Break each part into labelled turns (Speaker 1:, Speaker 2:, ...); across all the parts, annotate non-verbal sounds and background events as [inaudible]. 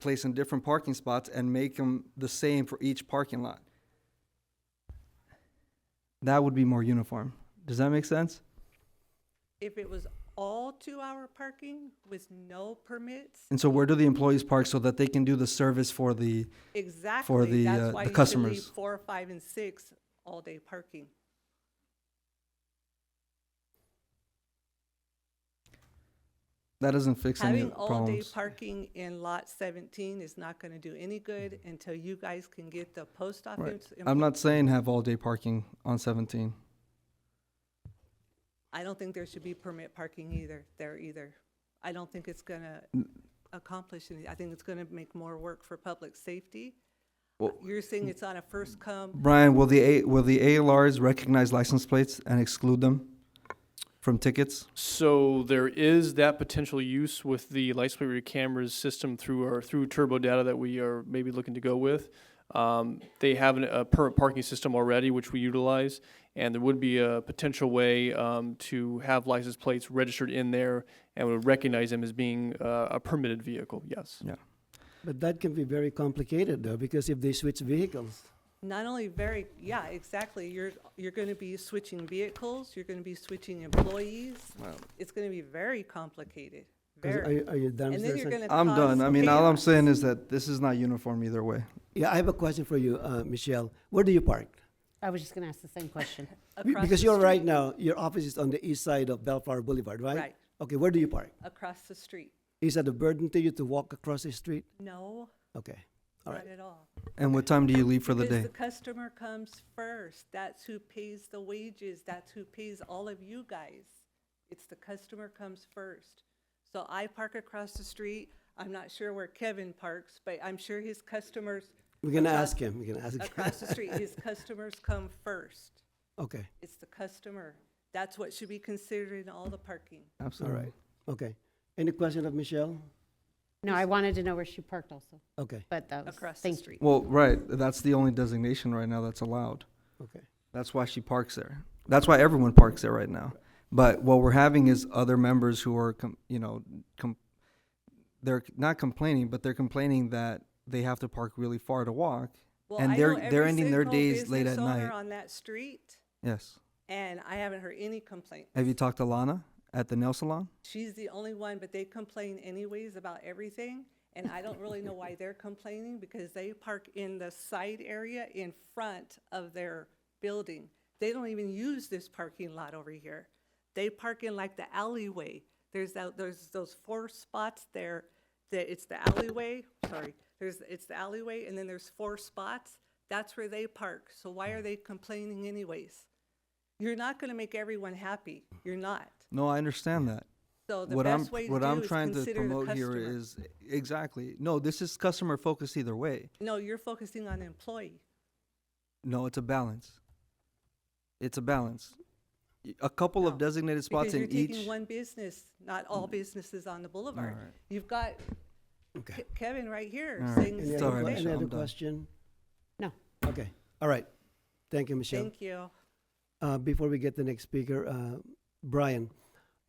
Speaker 1: place in different parking spots and make them the same for each parking lot. That would be more uniform. Does that make sense?
Speaker 2: If it was all two-hour parking with no permits,
Speaker 1: And so where do the employees park so that they can do the service for the,
Speaker 2: exactly,
Speaker 1: the, uh,
Speaker 2: that's why
Speaker 1: the
Speaker 2: you should leave
Speaker 1: customers.
Speaker 2: four, five, and six all-day parking.
Speaker 1: that doesn't fix any
Speaker 2: Having
Speaker 1: of the
Speaker 2: all-day
Speaker 1: problems.
Speaker 2: parking in lot seventeen is not gonna do any good until you guys can get the post
Speaker 1: Mm-hmm. Right.
Speaker 2: office. in-
Speaker 1: I'm not saying have all day parking on seventeen.
Speaker 2: I don't think there should be permit parking either, there either. I don't think it's gonna accomplish anything. I think it's gonna make more work for public safety.
Speaker 1: Well-
Speaker 2: You're saying it's on a first come,
Speaker 1: Brian, will the A, will the ALRs recognize license plates and exclude them from tickets?
Speaker 3: So there is that potential use with the license plate reader cameras system through our, through turbo data that we are maybe looking to go with. Um, they have an- a permit parking system already, which we utilize, and there would be a potential way, um, to have license plates registered in there and would recognize them as being, uh, a permitted vehicle, yes.
Speaker 4: But that can be very complicated though, because if they switch vehicles,
Speaker 2: not only very, yeah, exactly, you're, you're gonna be switching vehicles, you're gonna be switching employees. It's gonna be very complicated,
Speaker 4: 'cause
Speaker 2: very.
Speaker 4: are, are you done?
Speaker 2: And
Speaker 4: Mr.
Speaker 2: then you're
Speaker 4: Sen-
Speaker 2: gonna
Speaker 1: I'm done.
Speaker 2: cause
Speaker 1: I mean, all I'm
Speaker 2: chaos.
Speaker 1: saying is that this is not uniform either way.
Speaker 4: Yeah, I have a question for you, uh, Michelle. Where do you park?
Speaker 5: I was just gonna ask the same question.
Speaker 4: Be-
Speaker 2: Across
Speaker 4: Because
Speaker 2: the
Speaker 4: you're right
Speaker 2: street.
Speaker 4: now, your office is on the east side of Bellflower Boulevard, right?
Speaker 2: Right.
Speaker 4: Okay, where do you park?
Speaker 2: Across the street.
Speaker 4: Is that a burden to you to walk across the street?
Speaker 2: No,
Speaker 4: Okay, all
Speaker 2: not
Speaker 4: right.
Speaker 2: at all.
Speaker 1: And what time do you leave for the
Speaker 2: Because
Speaker 1: day?
Speaker 2: the customer comes first. That's who pays the wages. That's who pays all of you guys. It's the customer comes first. So I park across the street. I'm not sure where Kevin parks, but I'm sure his customers
Speaker 4: We're gonna
Speaker 2: across-
Speaker 4: ask him, we're gonna [laughs] ask him.
Speaker 2: across the street, his customers come first.
Speaker 4: Okay,
Speaker 2: It's the customer. That's what should be considered in all the parking.
Speaker 4: all
Speaker 1: Absolutely.
Speaker 4: right, okay. Any question of Michelle?
Speaker 5: No, I wanted to know where she parked also,
Speaker 4: Okay,
Speaker 5: but that was,
Speaker 2: Across the
Speaker 5: thank
Speaker 2: street.
Speaker 1: Well, right, that's the only designation right now that's allowed.
Speaker 4: okay.
Speaker 1: That's why she parks there. That's why everyone parks there right now. But what we're having is other members who are, com- you know, com- they're not complaining, but they're complaining that they have to park really far to walk.
Speaker 2: Well,
Speaker 1: And
Speaker 2: I
Speaker 1: they're-
Speaker 2: know
Speaker 1: they're
Speaker 2: every
Speaker 1: ending their
Speaker 2: single
Speaker 1: days late
Speaker 2: business
Speaker 1: at
Speaker 2: owner
Speaker 1: night.
Speaker 2: On that street,
Speaker 1: Yes.
Speaker 2: and I haven't heard any complaints.
Speaker 1: Have you talked to Lana at the nail salon?
Speaker 2: She's the only one, but they complain anyways about everything. And I don't really know why they're complaining because they park in the side area in front of their building. They don't even use this parking lot over here. They park in like the alleyway. There's that, there's those four spots there that it's the alleyway, sorry, there's, it's the alleyway and then there's four spots. That's where they park. So why are they complaining anyways? You're not gonna make everyone happy. You're not.
Speaker 1: No, I understand that.
Speaker 2: So the
Speaker 1: what I'm
Speaker 2: best way to
Speaker 1: what
Speaker 2: do
Speaker 1: I'm
Speaker 2: is
Speaker 1: trying to
Speaker 2: consider
Speaker 1: promote
Speaker 2: the
Speaker 1: here
Speaker 2: customer.
Speaker 1: is exactly no. This is customer focused either way.
Speaker 2: no, you're focusing on employee.
Speaker 1: No, it's a balance. It's a balance. Y- A couple of
Speaker 2: No,
Speaker 1: designated spots
Speaker 2: because you're
Speaker 1: in each. Mm.
Speaker 2: taking one business, not all businesses on the boulevard.
Speaker 1: Alright.
Speaker 2: You've got
Speaker 4: Okay.
Speaker 2: Ke- Kevin right here
Speaker 1: Alright.
Speaker 2: saying
Speaker 1: It's
Speaker 4: Any
Speaker 2: the
Speaker 1: all
Speaker 4: other,
Speaker 1: right,
Speaker 2: same
Speaker 4: que-
Speaker 2: thing.
Speaker 1: Michelle,
Speaker 4: any
Speaker 1: I'm
Speaker 4: other
Speaker 1: done.
Speaker 4: question?
Speaker 5: No.
Speaker 4: Okay, all right. Thank you, Michelle.
Speaker 2: Thank you.
Speaker 4: Uh, before we get the next speaker, uh, Brian,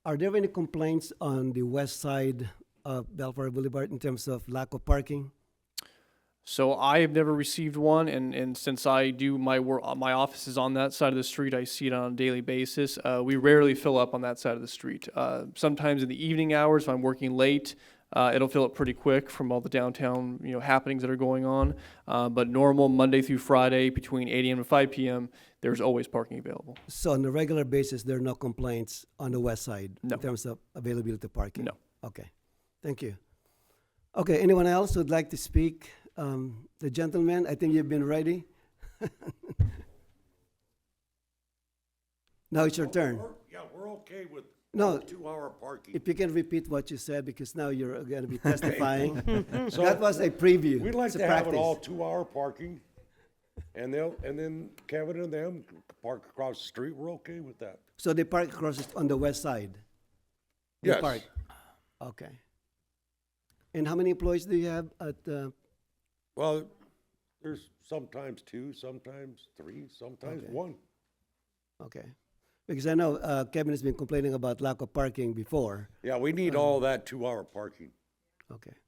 Speaker 4: are there any complaints on the west side of Bellflower Boulevard in terms of lack of parking?
Speaker 3: So I have never received one, and, and since I do my work, my office is on that side of the street. I see it on a daily basis. Uh, we rarely fill up on that side of the street. Uh, sometimes in the evening hours, if I'm working late, uh, it'll fill up pretty quick from all the downtown you know happenings that are going on. Uh, but normal Monday through Friday between 8 a.m. and 5 p.m. There's always parking available.
Speaker 4: So on a regular basis, there are no complaints on the west side
Speaker 3: No.
Speaker 4: in terms of availability of parking?
Speaker 3: No.
Speaker 4: Okay, thank you. Okay, anyone else who'd like to speak? Um, the gentleman, I think you've been ready. [laughs] Now it's your turn.
Speaker 6: We're- Yeah, we're okay with
Speaker 4: No.
Speaker 6: two-hour parking.
Speaker 4: If you can repeat what you said, because now you're gonna
Speaker 3: [laughs]
Speaker 4: be testifying.
Speaker 6: So,
Speaker 4: Mm. That was a preview.
Speaker 6: We'd like
Speaker 4: It's a
Speaker 6: to have it
Speaker 4: practice.
Speaker 6: all two-hour parking, and they'll, and then Kevin and them can park across the street, we're okay with that.
Speaker 4: So they park across the- on the west side? They
Speaker 6: Yes.
Speaker 4: park. Okay. And how many employees do you have at, uh,
Speaker 6: Well, there's sometimes two, sometimes three, sometimes
Speaker 4: Okay.
Speaker 6: one.
Speaker 4: okay. Because I know uh, Kevin has been complaining about lack of parking before.
Speaker 6: Yeah, we need all that two-hour parking.
Speaker 4: Okay.